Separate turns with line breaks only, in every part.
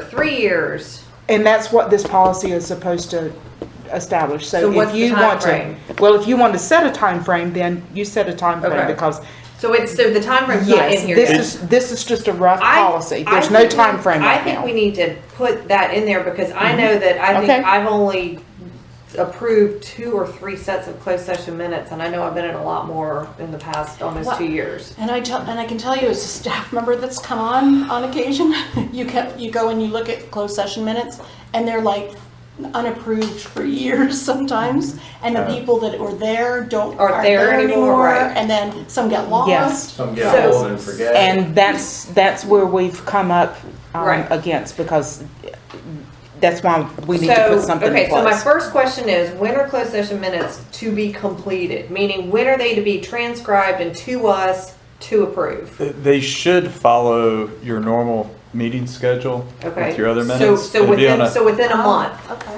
for three years.
And that's what this policy is supposed to establish,
So
so
what's
if
the
you want to.
timeframe?
Well, if you want to set a time frame, then you set a time frame
Okay.
because,
So it's, so the timeframe's not
yes,
in here yet.
this is, this is just a rough
I-
policy.
I
There's no
think we-
time frame right
I think we
now. Mm-hmm.
need to put that in there because I know that I
Okay.
think I've only approved two or three sets of closed session minutes and I know I've been in a lot more in the past almost
Well-
two years.
And I tell, and I can tell you as a staff member that's come on on occasion, you can, you go and you look at closed session minutes and they're like unapproved for years sometimes. And the people that were there don't,
Aren't
aren't
there
there
anymore,
anymore.
right.
And then some get
Yes.
lost.
Some get
So-
old and forget.
And that's, that's where we've come up um,
Right.
against because that's why we need to
So,
put something
Okay,
in
so my
place.
first question is, when are closed session minutes to be completed? Meaning, when are they to be transcribed and to us to approve?
They should follow your normal meeting schedule
Okay?
with your other
So-
minutes.
So
It'd be on
within,
a-
so within a month
Okay.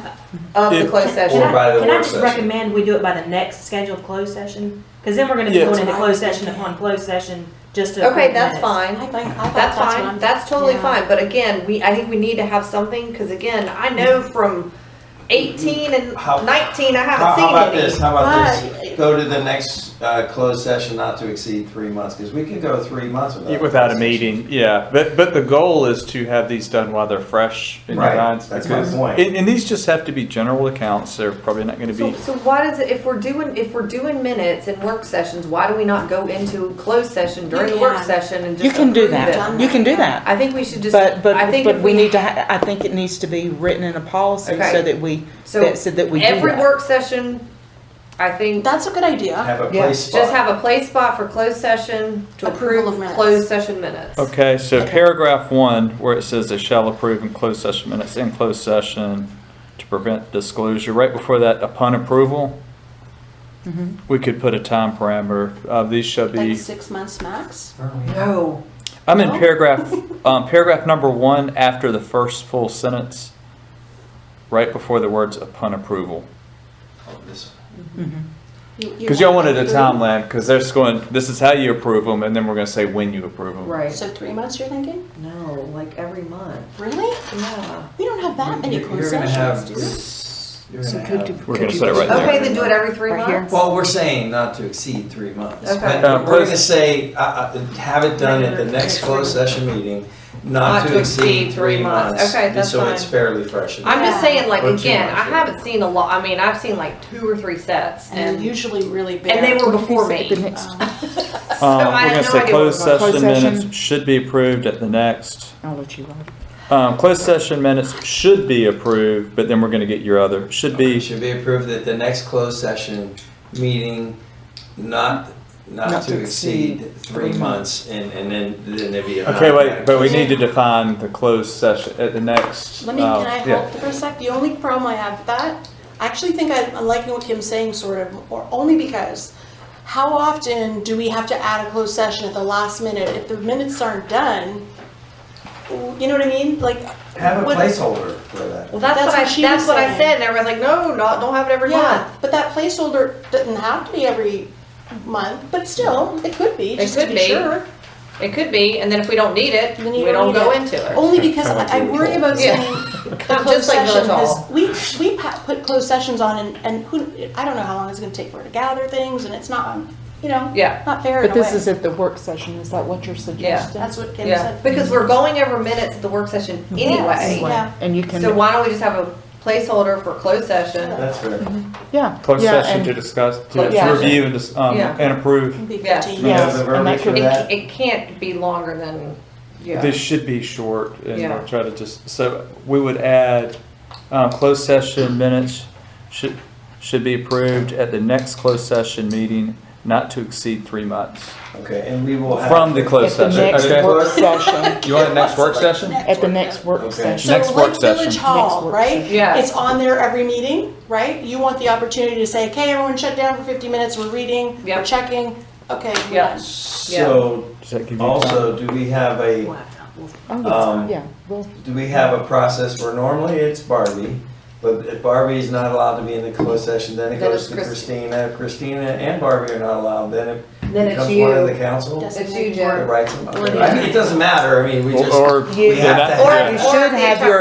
of the
If-
closed
Or
session.
by the
Can I
work
just
session.
recommend we do it by the next scheduled closed session? Because then we're gonna be
Yeah.
going into closed session upon closed session just to.
Okay,
approve
that's
minutes.
fine.
I think, I
That's
thought that's what
fine,
I'm-
that's totally
yeah.
fine, but again, we, I think we need to have something, cause again, I know
Mm-hmm.
from eighteen and
How-
nineteen, I
How,
haven't
how
seen
about
any.
this, how about
Right.
this, go to the next, uh, closed session not to exceed three months, because we could go three months without.
Without a
closed session.
meeting, yeah. But, but the goal is to have these done while they're fresh in your
Right,
minds.
that's my
because-
point.
And, and these just have to be general accounts. They're probably not gonna
So,
be,
so why does it, if we're doing, if we're doing minutes and work sessions, why do we not go into closed session during the work
can.
session and just
You can do
approve it?
that, you can do that.
I think we should just,
But,
I
but,
think
but
if
we
we,
need to, ha- I think it needs to be written in a policy
Okay.
so that we,
So
that, so that we do
every
that.
work session, I think,
That's a good idea.
Have a
Yeah.
place
just
spot.
have a play spot for closed session to
Approval
approve
of minutes.
closed session minutes.
okay, so paragraph one, where it says they shall approve in closed session minutes, in closed session to prevent disclosure, right before that, upon approval,
Mm-hmm.
we could put a time parameter. Uh, these shall be.
Like six months max.
No,
I'm in
No?
paragraph, um, paragraph number one, after the first full sentence, right before the words upon approval.
Oh, this-
Mm-hmm.
Because y'all wanted a timeline, because they're just going, this is how you approve them, and then we're gonna say when you approve them.
right,
So three months, you're thinking?
no, like every month,
Really?
yeah.
We don't have that many
You're-
closed
you're gonna
sessions, do
have-
we?
you're
So
gonna
could
have-
you-
We're gonna set it right there.
Okay, then do it every three
Right here.
months.
Well, we're saying not to exceed three months,
Okay.
but
Uh,
we're gonna
close-
say, uh, uh, have it done at the next closed session meeting, not to exceed three months.
Okay,
and
that's
So it's
fine.
fairly fresh. in
I'm just
Yeah.
saying, like,
Or two
again, I
months, yeah.
haven't seen a lot, I mean, I've seen like two or three sets
And they're
and,
usually really big.
and they were before
What did you say? The
me.
next-
Um,
So
Um,
I have
we're
no
gonna say
idea what we're
closed
going
session
Closed session.
minutes should be approved at the next.
I'll let you run.
Um, closed session minutes should be approved, but then we're gonna get your other, should
Okay,
be,
Should be approved at the next closed session meeting, not, not to exceed three months, and, and then, then there'd be a.
okay, wait, but we need to define the closed session at the next.
Let me,
uh,
can I
yeah.
hold for a sec? The only problem I have with that, I actually think I I like what Kim's saying sort of, or only because how often do we have to add a closed session at the last minute? If the minutes aren't done, you know what I mean? Like.
Have a
what-
placeholder for that.
Well, that's
That's
what I,
what she
that's
was
what I
saying.
said and everybody's like, no, not, don't have it every month.
Yeah, but that placeholder doesn't have to be every month, but still, it could be,
It
just to
could
be
be.
sure.
It could be, and then if we don't need it,
Then
we
you
don't
don't
go
need it.
into it.
Only because
Kinda like
I I
village
worry
hall.
about
Yeah.
saying
Just
closed
like village
session
hall.
has, we, we pa- put closed sessions on and, and who, I don't know how long it's gonna take for her to gather things and it's not, you know,
Yeah,
not fair in
But
a
this is
way.
at the work session, is that what you're suggesting?
That's what Kim
yeah,
said.
because we're going over minutes at the work session anyway.
Yeah.
And you can,
So why don't we just have a placeholder for closed session?
That's fair.
yeah.
Closed
yeah,
session
and-
to discuss, to
Closed session.
review and, dis- um,
Yeah.
and approve.
It'd be
Yeah.
15.
You have the
Yes, and that
verbiage for
could-
It,
that?
it can't be longer than, yeah.
This should be short and
Yeah.
I'll try to just, so we would add, um, closed session minutes should, should be approved at the next closed session meeting, not to exceed three months.
Okay, and we will have.
From the
At
closed
the
session,
next
okay?
work session,
You want the next work session?
at the next work
Okay.
session.
So
Next work
like Village
session.
Next
Hall,
work
right?
session.
Yeah.
It's on there every meeting, right? You want the opportunity to say, okay, everyone shut down for 50 minutes, we're reading,
Yeah.
we're checking, okay, we're
Yeah.
done.
So,
Does that give you time?
also, do we have a,
Oh,
Um,
yes, yeah, well,
do we have a process where normally it's Barbie, but if Barbie is not allowed to be in the closed session, then it
Then
goes
it's
to
Christi-
Christina. If Christina and Barbie are not allowed, then it
Then it's
becomes one of the
you.
council.
Yes.
It's you,
It
Joe.
writes them.
Or the-
I mean, it doesn't matter. I mean, we just,
Or-
we
they're
have
not-
to
Or
have.
You
if
should
the
have your